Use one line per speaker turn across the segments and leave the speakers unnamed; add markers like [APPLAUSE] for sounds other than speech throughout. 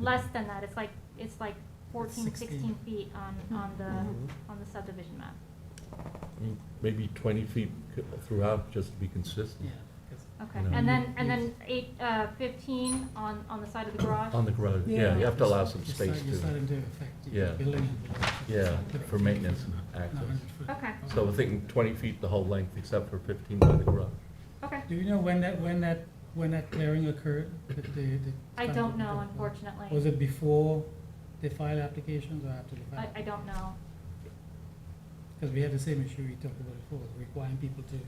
less than that, it's like, it's like 14,
16.
16 feet on, on
Mm-hmm.
Mhm.
the, on the subdivision map.
Maybe twenty feet c- throughout, just to be consistent,
Yeah, 'cause-
Okay,
No.
and then, and
You- Um,
then eight, uh, 15 on, on the side of the garage?
on the garage, yeah, you have to allow some
It's
space
not- It's not
to,
going to affect
Yeah.
your building. and the lot.
yeah,
It's
for
not
maintenance
gonna
and
affect the
access.
100 foot.
Okay,
So we're thinking twenty feet the whole length, except for fifteen by the garage.
okay.
Do you know when that, when that, when that clearing occurred? The- the- the-
I don't know,
Was
unfortunately.
it before they filed applications or after they
I,
filed?
I don't know.
Because we had the same issue we talked about before, requiring people to,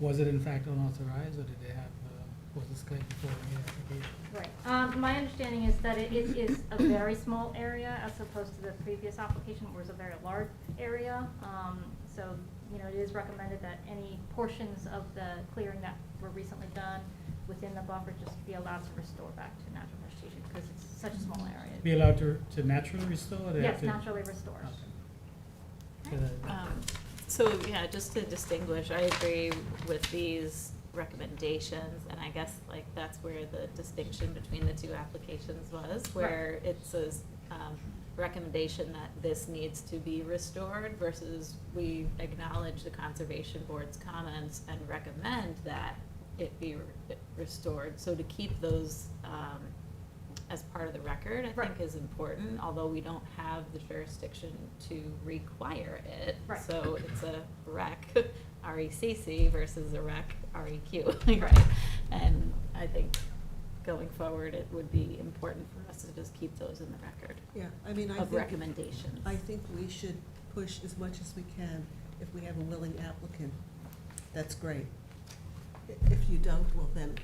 was it in fact unauthorized or did they have, uh, was this claim before the application?
Right. Um, my understanding is that it, it is a very small area as opposed to the previous application, where it was a very large area. Um, so, you know, it is recommended that any portions of the clearing that were recently done within the buffer just be allowed to restore back to natural vegetation, because it's such a small
Be
area.
allowed to, to naturally restore? or they have
Yes,
to-
naturally restored.
Okay. So that-
Um, So, yeah, just to distinguish, I agree with these recommendations, and I guess like that's where the distinction between the two applications was, where it says, um, recommendation that this needs to be restored versus we acknowledge the conservation board's comments and recommend that it be re- restored. So to keep those, um, as part of the record, I
Right.
think is important, although we don't have the jurisdiction to require it.
Right.
So it's a rec, [LAUGHS] R-E-C-C versus a rec, R-E-Q, right? [LAUGHS] And I think going forward, it would be important for us to just keep those in the record
Yeah, I mean, I
of
think,
recommendations.
I think we should push as much as we can. If we have a willing applicant, that's great. I- If you don't, well then,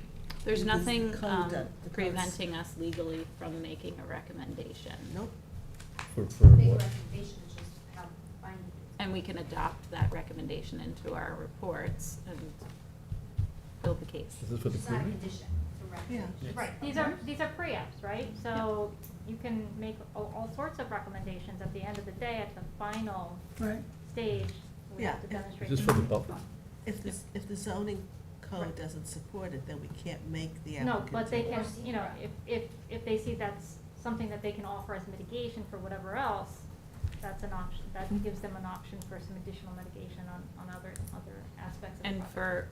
There's
the- the
nothing
code
um,
that- the codes-
preventing us legally from making a recommendation.
nope.
For, for
Big
what?
recommendation is just how binding it
And we can adopt that recommendation into our reports and build the case.
Is this for
is.
the
It's not a
clearing?
condition, it's a recommendation.
Yeah.
Right, these
Mm-hmm.
are, these are pre-apps, right? So you can make all, all sorts of recommendations at the end of the day, at the final
Right.
stage, we have
Yeah.
to demonstrate.
Is this for the buffer?
If this, if the zoning
Right.
code doesn't support it, then we can't make the
No,
applicant.
but they
do it.
can, you know, if, if, if they see that's something that they can offer as mitigation for whatever else, that's an option, that gives them an option for some additional mitigation on, on other, other aspects of the
And
project.
for,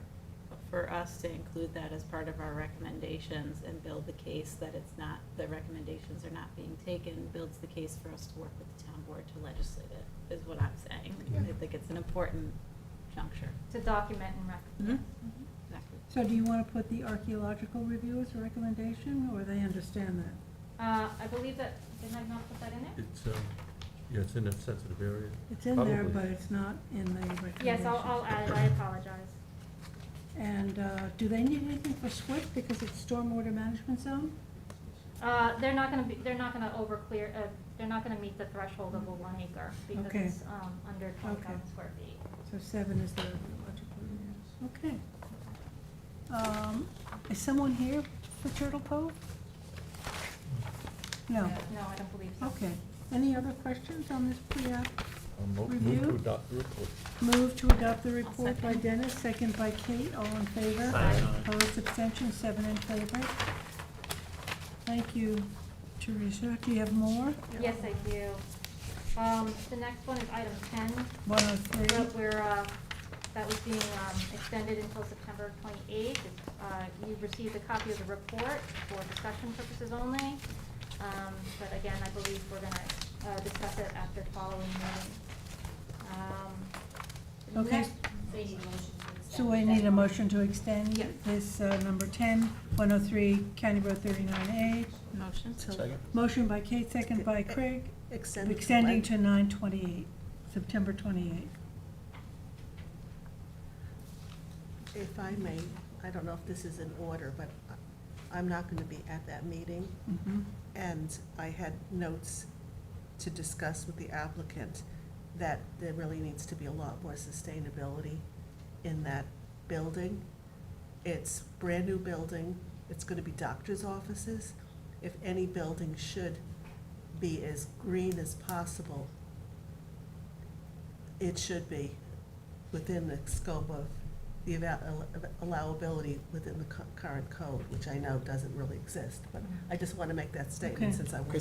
for us to include that as part of our recommendations and build the case that it's not, the recommendations are not being taken, builds the case for us to work with the town board to legislate it, is what I'm saying. I think it's an important juncture.
To document and rec.
Mhm.
Mhm.
Exactly.
So do you want to put the archaeological review as a recommendation, or they understand that?
Uh, I believe that, did I not put that in there?
It's, um, yeah, it's in a sensitive area.
It's in there,
Probably.
but it's not in the recommendation.
Yes, I'll, I'll add it, I apologize.
And uh, do they need anything for SWIP because it's stormwater management zone?
Uh, they're not gonna be, they're not gonna overclear, uh, they're not gonna meet the threshold of a one acre, because
Okay.
it's, um, under twenty thousand square feet.
So seven is the archaeological review. Okay. Um, Is someone here for Turtle Cove? No.
No, I don't believe so.
Okay. Any other questions on this pre-app?
I'll mo- Um, move to
Review?
adopt the report.
Move to adopt the report by
second.
Dennis, second by Kate, all in favor?
Aye.
Opposed, abstentions, seven in favor. Thank you, Teresa. Do you have more?
Yes, I do. Um, the next one is item ten,
One oh three.
that we're, uh, that was being, um, extended until September twenty-eighth. Uh, you received a copy of the report for discussion purposes only. Um, but again, I believe we're gonna, uh, discuss it after the following meeting. Um, the
Okay.
next-
So you need a motion to extend.
So I need a motion to extend
Yeah.
this, uh, number ten, one oh three, County Road thirty-nine
Motion?
Till-
Second.
A. Motion by Kate, second by Craig,
Extend. it till
extending
when?
to nine twenty-eight, September twenty-eighth.
If I may, I don't know if this is in order, but I- I'm not going to be at that meeting.
Mm-hmm.
And I had notes to discuss with the applicant that there really needs to be a lot more sustainability in that building. It's brand-new building, it's gonna be doctor's offices. If any building should be as green as possible, it should be within the scope of the ava- uh, allowability within the cu- current code, which I know doesn't really exist, but I just wanna make that statement
Okay.
since I was